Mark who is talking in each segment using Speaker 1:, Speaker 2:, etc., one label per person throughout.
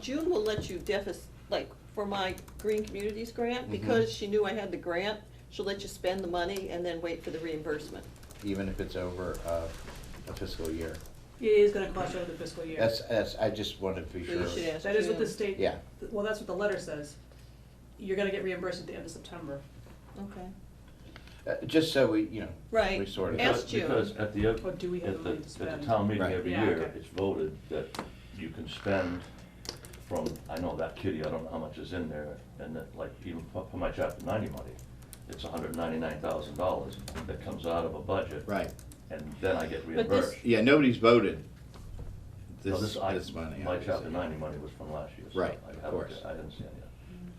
Speaker 1: June will let you deficit, like, for my Green Communities
Speaker 2: Mm-hmm.
Speaker 1: grant, because she knew I had the grant, she'll let you spend the money and then wait for the reimbursement.
Speaker 2: even if it's over uh, a fiscal year.
Speaker 3: It is gonna cost you over the fiscal year.
Speaker 2: That's, that's, I just wanted to be
Speaker 1: So you
Speaker 2: sure.
Speaker 1: should ask.
Speaker 3: That is what the
Speaker 1: June.
Speaker 3: state.
Speaker 2: Yeah.
Speaker 3: Well, that's what the letter says. You're gonna get reimbursed at the end of September.
Speaker 1: Okay.
Speaker 2: Uh, Just so we, you know.
Speaker 1: Right.
Speaker 2: We sort
Speaker 1: Ask
Speaker 2: of,
Speaker 4: Because-
Speaker 1: June.
Speaker 4: Because at the,
Speaker 3: Or
Speaker 4: at
Speaker 3: do we have the
Speaker 4: the,
Speaker 3: money to
Speaker 4: at
Speaker 3: spend?
Speaker 4: the town meeting
Speaker 2: Right.
Speaker 4: every
Speaker 3: Yeah,
Speaker 4: year,
Speaker 3: okay.
Speaker 4: it's voted that you can spend from, I know that kitty, I don't know how much is in there, and that, like, even for for my chapter ninety money, it's hundred ninety-nine thousand dollars that comes out of a budget.
Speaker 2: right.
Speaker 4: And then I get
Speaker 1: But this-
Speaker 4: reimbursed.
Speaker 2: Yeah, nobody's voted
Speaker 4: No,
Speaker 2: this,
Speaker 4: I-
Speaker 2: this money.
Speaker 4: My
Speaker 2: obviously.
Speaker 4: chapter ninety money was from last year. so
Speaker 2: Right,
Speaker 4: I
Speaker 2: of
Speaker 4: haven't-
Speaker 2: course.
Speaker 4: I didn't see it yet.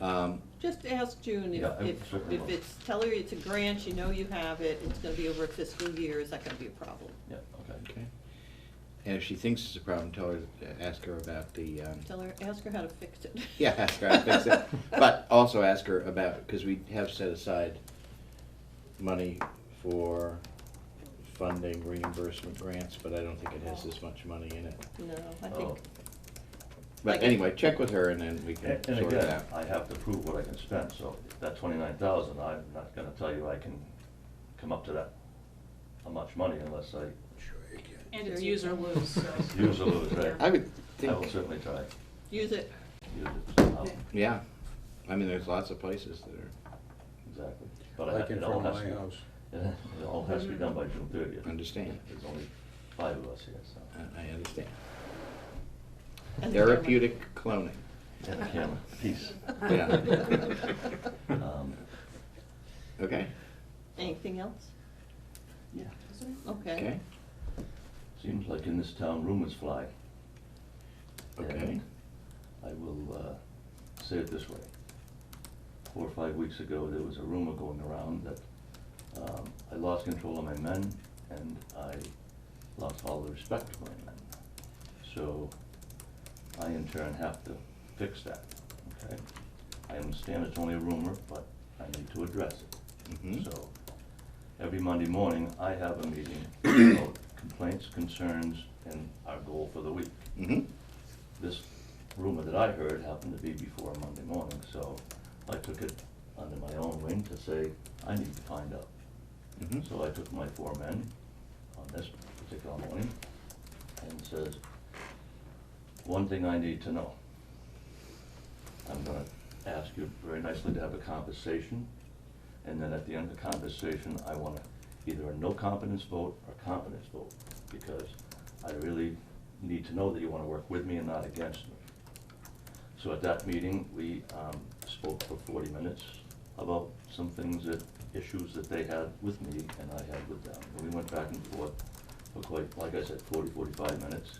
Speaker 2: Um,
Speaker 1: Just ask June if,
Speaker 4: Yeah, I
Speaker 1: if,
Speaker 4: certainly
Speaker 1: if
Speaker 4: will.
Speaker 1: it's, tell her it's a grant, you know you have it, it's gonna be over a fiscal year, is that gonna be a problem?
Speaker 4: Yeah, okay.
Speaker 2: okay. And if she thinks it's a problem, tell her, ask her about the, um,
Speaker 1: Tell her, ask her how to fix it.
Speaker 2: yeah, ask her, how to fix it. But also ask her about, because we have set aside money for funding reimbursement grants, but I don't think it has this much money in it.
Speaker 1: No, I
Speaker 4: Oh.
Speaker 1: think,
Speaker 2: But
Speaker 1: Like-
Speaker 2: anyway, check with her and then we can
Speaker 4: And and
Speaker 2: sort it
Speaker 4: again,
Speaker 2: out.
Speaker 4: I have to prove what I can spend, so that twenty-nine thousand, I'm not gonna tell you I can come up to that, how much money unless I
Speaker 3: And it's use or lose, so.
Speaker 4: use or lose, right?
Speaker 2: I would
Speaker 4: I will
Speaker 2: think,
Speaker 4: certainly try.
Speaker 1: use it,
Speaker 4: Use it somehow.
Speaker 3: Yeah.
Speaker 2: yeah, I mean, there's lots of places that are,
Speaker 4: Exactly. But I
Speaker 5: Like
Speaker 4: ha-
Speaker 5: in
Speaker 4: it
Speaker 5: front
Speaker 4: all
Speaker 5: of
Speaker 4: has
Speaker 5: my
Speaker 4: to,
Speaker 5: house.
Speaker 4: it all has to be done by June thirtieth.
Speaker 2: Understand.
Speaker 4: There's only five of us here, so.
Speaker 2: I- I understand.
Speaker 1: And the camera.
Speaker 2: Therapeutic cloning.
Speaker 1: Uh.
Speaker 4: And the camera, peace.
Speaker 2: Yeah.
Speaker 4: Um,
Speaker 2: Okay,
Speaker 1: anything else?
Speaker 4: Yeah.
Speaker 1: Okay.
Speaker 2: okay,
Speaker 4: Seems like in this town rumors fly.
Speaker 2: okay.
Speaker 4: And I will uh, say it this way. Four or five weeks ago, there was a rumor going around that um, I lost control of my men and I lost all the respect for my men. So I in turn have to fix that, okay? I understand it's only a rumor, but I need to address it.
Speaker 2: Mhm.
Speaker 4: So every Monday morning, I have a meeting about complaints, concerns, and our goal for the week
Speaker 2: Mm-hmm,
Speaker 4: this rumor that I heard happened to be before Monday morning, so I took it under my own wing to say, I need to find out.
Speaker 2: mm-hmm.
Speaker 4: So I took my four men on this particular morning and says, one thing I need to know. I'm gonna ask you very nicely to have a conversation, and then at the end of the conversation, I wanna either a no confidence vote or confidence vote, because I really need to know that you wanna work with me and not against me. So at that meeting, we um, spoke for forty minutes about some things that, issues that they had with me and I had with them. And we went back and forth for quite, like I said, 40, 45 minutes.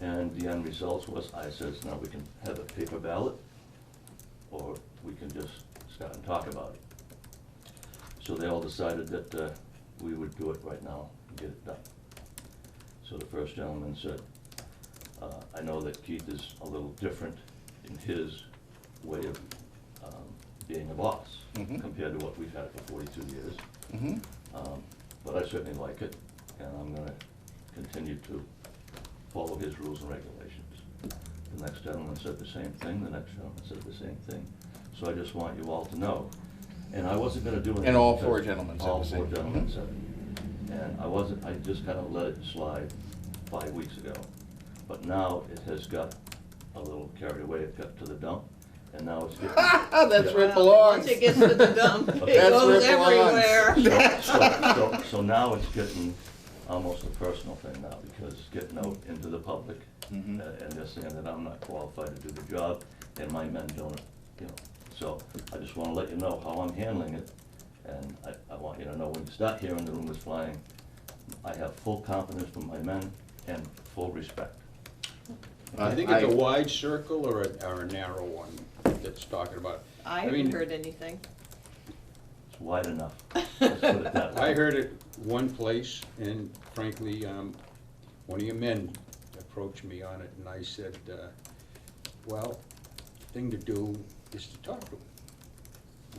Speaker 4: And the end result was, I says, now we can have a paper ballot, or we can just start and talk about it. So they all decided that uh, we would do it right now and get it done. So the first gentleman said, uh, I know that Keith is a little different in his way of um, being a boss
Speaker 2: Mhm.
Speaker 4: compared to what we've had for forty-two years.
Speaker 2: Mm-hmm.
Speaker 4: Um, But I certainly like it, and I'm gonna continue to follow his rules and regulations. The next gentleman said the same thing, the next gentleman said the same thing. So I just want you all to know, and I wasn't gonna do anything.
Speaker 2: And all
Speaker 4: because
Speaker 2: four gentlemen said the
Speaker 4: All four
Speaker 2: same.
Speaker 4: gentlemen
Speaker 2: Mhm.
Speaker 4: said it. And I wasn't, I just kinda let it slide five weeks ago. But now it has got a little carried away, it got to the dump, and now it's getting.
Speaker 2: Oh, That's where
Speaker 1: Once
Speaker 2: it belongs.
Speaker 1: it gets to the dump, it
Speaker 4: That's
Speaker 2: where
Speaker 1: goes
Speaker 2: it belongs.
Speaker 1: everywhere.
Speaker 4: So- So so- so now it's getting almost a personal thing now, because it's getting out into the public, uh,
Speaker 2: Mhm.
Speaker 4: and they're saying that I'm not qualified to do the job, and my men don't, you know. So I just wanna let you know how I'm handling it, and I, I want you to know when you start hearing the rumors flying, I have full confidence from my men and full respect.
Speaker 5: I think it's a wide circle or a, or a narrow one that's talking about.
Speaker 1: I
Speaker 5: mean,
Speaker 1: haven't heard anything.
Speaker 4: It's wide enough, let's put it that way.
Speaker 5: I heard it one place, and frankly, um, one of your men approached me on it, and I said, uh, well, thing to do is to talk to him.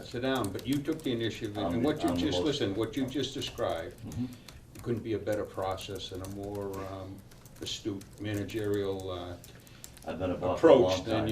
Speaker 5: Sit down, but you took the initiative,
Speaker 4: I'm
Speaker 5: and
Speaker 4: the-
Speaker 5: what you
Speaker 4: I'm the
Speaker 5: just,
Speaker 4: most-
Speaker 5: listen, what you just described,
Speaker 4: Mhm.
Speaker 5: It couldn't be a better process and a more um, astute managerial uh,
Speaker 4: I've been a boss for a long
Speaker 5: approach
Speaker 4: time.
Speaker 5: than you